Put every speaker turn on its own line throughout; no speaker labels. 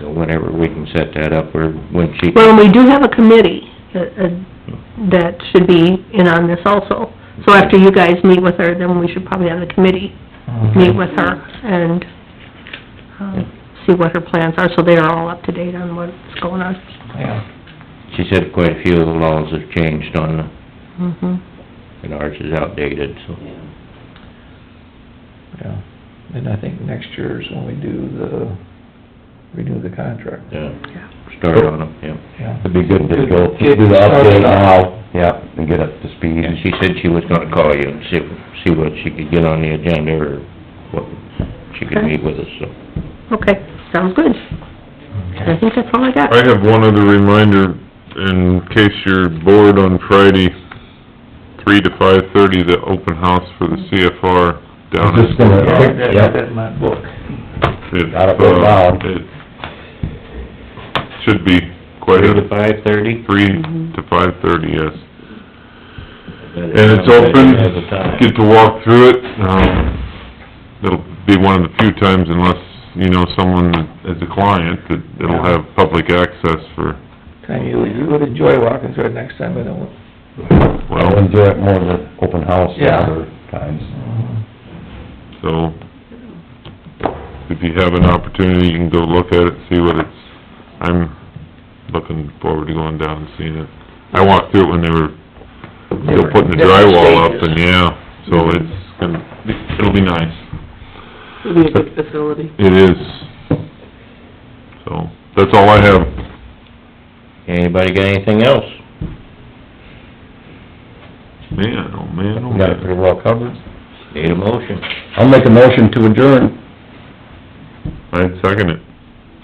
So whenever we can set that up, or when she,
Well, we do have a committee uh, uh, that should be in on this also. So after you guys meet with her, then we should probably have the committee meet with her and, um, see what her plans are, so they are all up to date on what's going on.
Yeah,
she said quite a few of the laws have changed on, the-
Mhm.
and ours is outdated, so.
yeah. And I think next year is when we do the, renew the contract.
Yeah, start on them, yeah.
Yeah.
It'd be good to go,
Get
do the
started
update
on-
now, yep, and get up to speed.
And she said she was gonna call you and see, see what she could get on the agenda, or what, she could meet with us, so.
Okay, sounds good. I think that's all I got.
I have one other reminder, in case you're bored on Friday, three to five-thirty, the open house for the CFR down
Just
at...
gonna,
Yeah,
quick-
I got
yep,
that in my book.
it's,
gotta go
uh,
down.
it Should be quite
Three
a,
to five-thirty?
three to five-thirty, yes. And it's open, get to walk through it, um, it'll be one of the few times unless, you know, someone is a client, that it'll have public access for,
Kind of, you, you would enjoy walking through it next time, I don't,
I'll
well,
enjoy it more than open house the
Yeah.
other times.
so, if you have an opportunity, you can go look at it, see what it's, I'm looking forward to going down and seeing it. I walked through it when they were still putting the drywall up, and yeah, so it's gonna, it'll be nice.
It'd be a good facility.
It is. So, that's all I have.
Anybody got anything else?
Man, oh man, oh
We Got it
man.
pretty well covered.
Need a motion?
I'll make a motion to adjourn.
I second it.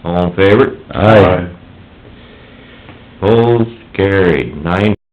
All in favor?
Aye.
Opposed, carried, nine